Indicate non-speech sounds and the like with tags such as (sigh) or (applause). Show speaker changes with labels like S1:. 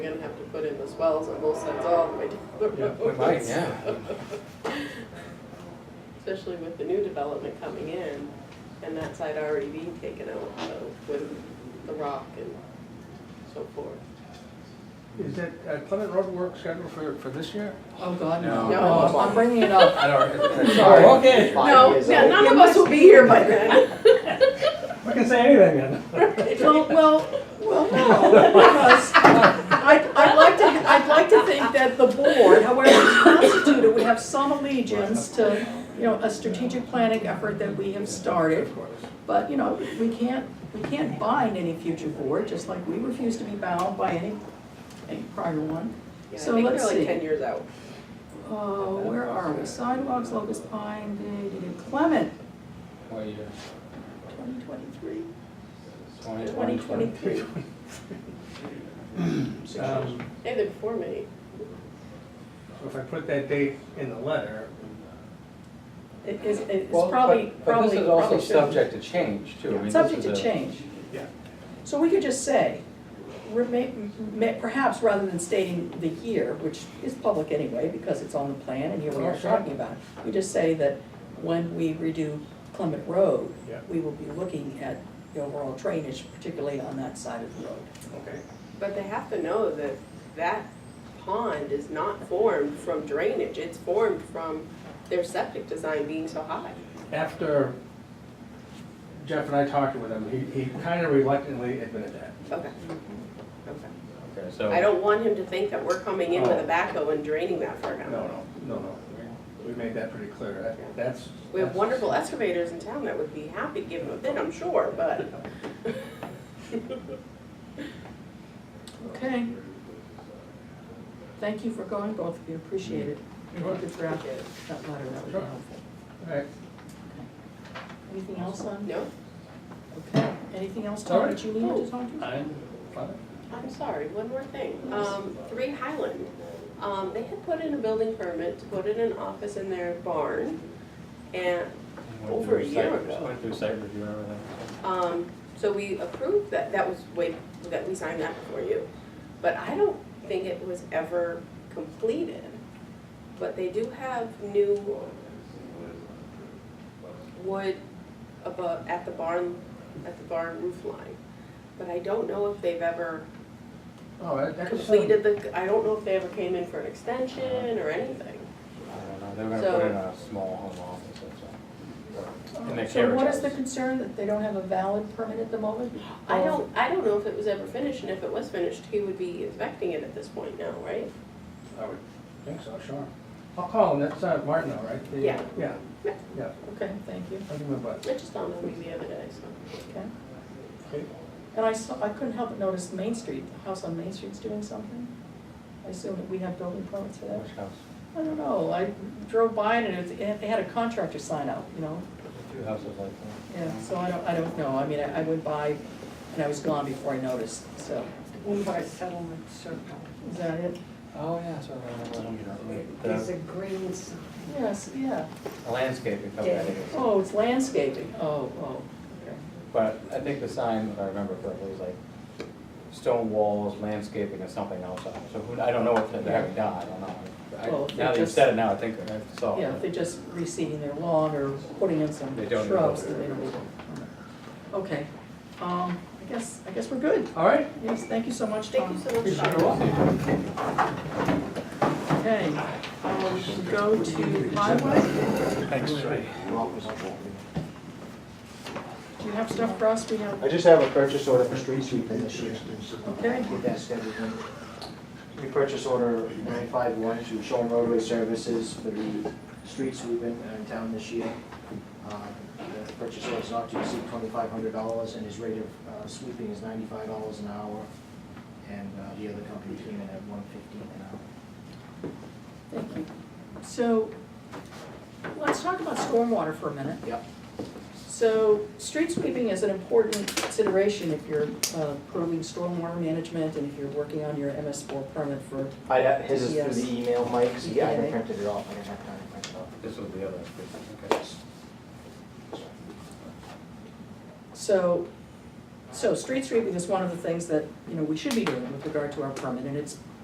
S1: put in those wells on both sides all the way down the
S2: Yeah,
S1: road.
S3: We might, yeah.
S1: Especially with the new development coming in and that side already being taken out, so with the rock and so forth.
S2: Is that uh, Clement Road work scheduled for, for this year?
S4: Oh, God,
S3: No.
S4: no.
S1: No.
S4: Oh, I'm bringing it up.
S3: I don't,
S4: Sorry.
S3: sorry, okay.
S5: Five
S1: No,
S5: years
S1: yeah,
S5: old.
S1: none of us will be here by then. (laughs)
S2: We can say anything then.
S4: Well, (laughs) well, uh,
S1: Well, no, because I, I'd like to, I'd like to think that the
S4: board, however it's constituted, we have some allegiance to, you know, a strategic planning effort that we have started.
S3: Of course.
S4: But, you know, we can't, we can't bind any future board, just like we refuse to be bound by any, any prior one.
S1: Yeah, I
S4: So
S1: think
S4: let's
S1: they're like
S4: see.
S1: ten years out.
S4: Uh, where are we? Sidewalks, Locust Pine, da, da, da. Clement,
S3: What year?
S4: twenty twenty-three?
S3: Twenty,
S4: Twenty
S3: twenty, twenty.
S4: twenty-three.
S2: (laughs) Um,
S1: Hey, they're before me.
S2: So if I put that date in the letter,
S4: It is, it's
S3: Well,
S4: probably,
S3: but- But
S4: probably,
S3: this is
S4: probably
S3: also
S4: shouldn't.
S3: subject to change too. I mean, this is
S4: Subject to
S3: a-
S4: change.
S2: Yeah.
S4: So we could just say, re- may- may- perhaps rather than stating the year, which is public anyway, because it's on the plan and here we
S2: Oh,
S4: are
S2: sure.
S4: talking about it, we just say that when we redo Clement Road,
S2: Yeah.
S4: we will be looking at the overall drainage, particularly on that side of the road.
S2: okay,
S1: But they have to know that that pond is not formed from drainage, it's formed from their septic design being so high.
S2: after Jeff and I talked with him, he, he kind of reluctantly admitted that.
S1: Okay. Okay.
S3: Okay, so.
S1: I don't want him to think that we're coming in with a backhoe and draining that for
S2: Oh. No,
S1: him.
S2: no, no, no, we- we made that pretty clear, That- that's.
S1: We have wonderful excavators in town that would be happy to give him a bid, I'm sure, but
S4: Okay. Thank you for going, both of you, appreciate it. If you could draft that letter, that would be
S2: Sure.
S4: helpful.
S2: All right,
S4: Anything else on?
S1: no,
S4: Okay, anything else,
S2: All
S4: Tom,
S2: right. Uh,
S4: that you
S1: Oh.
S4: needed to talk to?
S2: I'm fine.
S1: I'm sorry, one more thing. Um, Three Highland, um, they had put in a building permit to put in an office in their barn. And,
S3: Went
S1: over
S3: through
S1: a
S3: site-
S1: year ago.
S3: Went through site review and everything.
S1: um, so we approved that, that was way, that we signed that before you. But I don't think it was ever completed. But they do have new wood above, at the barn, at the barn roof line. But I don't know if they've ever
S2: Oh, that- that's.
S1: completed the, I don't know if they ever came in for an extension or anything.
S3: I don't know, they were gonna
S1: So-
S3: put in a small home office, that's all. In the
S4: So
S3: carriage
S4: what is
S3: house.
S4: the concern, that they don't have a valid permit at the moment?
S1: I don't, I don't know if it was ever finished, and if it was finished, he would be inspecting it at this point now, right?
S2: I would think so, sure. I'll call him, that's uh, Martin, all right? The-
S1: Yeah.
S2: Yeah,
S1: Yeah.
S2: yeah,
S4: Okay, thank you,
S2: I'll give him a buzz.
S1: I just don't know maybe the other day, so.
S4: okay.
S2: Okay.
S4: And I saw, I couldn't help but notice Main Street, the house on Main Street's doing something. I assume that we have building permits for that.
S3: Which house?
S4: I don't know, I drove by and it was, it- they had a contractor sign out, you know?
S3: Two houses like that.
S4: Yeah, so I don't, I don't know, I mean, I I went by and I was gone before I noticed, so.
S6: One by Settlement Circle.
S4: Is that it?
S3: Oh, yeah, so I
S6: There's a
S3: remember.
S6: green sign.
S4: Yes, yeah.
S3: The landscaping company,
S4: Oh, it's landscaping, oh, oh, okay.
S3: but I think the sign, if I remember correctly, was like stone walls, landscaping and something else on it. So who, I don't know what they're having done, I don't know.
S4: Well,
S3: I-
S4: they
S3: Now that you
S4: just-
S3: said it, now I think I saw
S4: Yeah, if they're
S3: it.
S4: just reseeding their lawn or putting in some
S3: Oh. They don't need
S4: shrubs
S3: water.
S4: that they don't need. Okay, um, I guess, I guess we're good.
S2: All right,
S4: Yes, thank you so much, Tom.
S1: Thank you so much, Tom.
S4: Okay, um, we go to highway.
S3: Thanks, Ray.
S4: Do you have stuff for us? We have,
S5: I just have a purchase order for street sweeping this year.
S4: Okay.
S5: Get that scheduled in. We purchase order nine five one to Shoal Roadway Services for the street sweeping in uh, town this year. Um, The purchase order is not to exceed twenty-five hundred dollars and his rate of uh, sweeping is ninety-five dollars an hour. And uh, the other company came in at one fifteen an hour.
S4: thank you. So, let's talk about stormwater for a minute.
S5: Yep.
S4: So, street sweeping is an important consideration if you're uh, approving stormwater management and if you're working on your MS four permit for,
S5: I have, his is through
S4: Yes.
S5: the email, Mike, so yeah, I
S4: Yeah.
S5: haven't printed it off, I didn't have time to print it off.
S3: This was the other, okay.
S4: so, so street sweeping is one of the things that, you know, we should be doing with regard to our permit, and it's